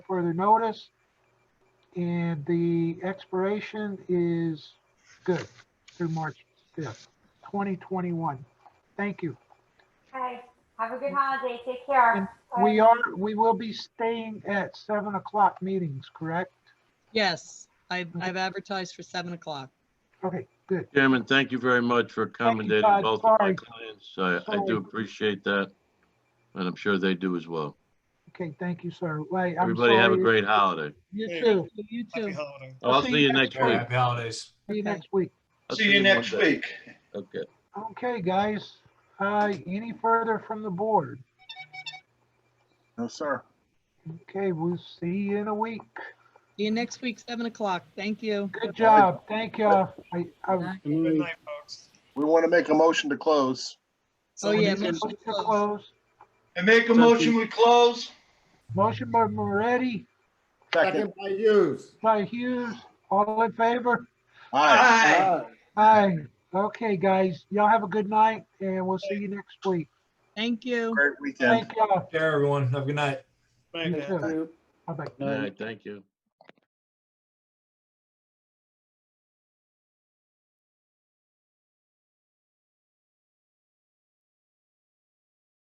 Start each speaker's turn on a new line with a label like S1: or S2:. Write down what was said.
S1: further notice. And the expiration is good through March 5th, 2021. Thank you.
S2: Okay, have a good holiday, take care.
S1: We are, we will be staying at 7 o'clock meetings, correct?
S3: Yes, I've, I've advertised for seven o'clock.
S1: Okay, good.
S4: Chairman, thank you very much for accommodating
S1: Todd.
S4: both of my
S1: Sorry.
S4: clients. I, I
S1: Sorry.
S4: do appreciate that. And I'm sure they do as well.
S1: Okay, thank you, sir. Wait, I'm
S4: Everybody have a
S1: sorry.
S4: great holiday.
S3: You
S5: Hey.
S3: too, you
S5: Happy
S3: too.
S5: holiday.
S4: I'll see you next
S1: time.
S4: week.
S6: Happy holidays.
S1: See you
S3: Okay.
S1: next week.
S4: I'll
S5: See you next
S4: Monday.
S5: week.
S4: Okay.
S1: Okay, guys, uh, any further from the board?
S5: No, sir.
S1: Okay, we'll see you in a week.
S3: See you next week, seven o'clock. Thank you.
S1: Good job. Thank you. I, I,
S5: Good night, folks.
S7: We want to make a motion to close.
S3: Oh, yeah.
S1: motion
S3: motion
S1: to close.
S5: And make a motion, we close.
S1: Motion by Moretti,
S7: Second.
S1: by Hughes, all in favor?
S7: Aye.
S5: Aye.
S1: Aye. Okay, guys, y'all have a good night and we'll see you next week.
S3: Thank you.
S7: Great weekend.
S1: Thank y'all.
S6: Care, everyone. Have a good night.
S5: Bye,
S1: You
S5: guys.
S1: too. Bye-bye.
S4: All right, thank you.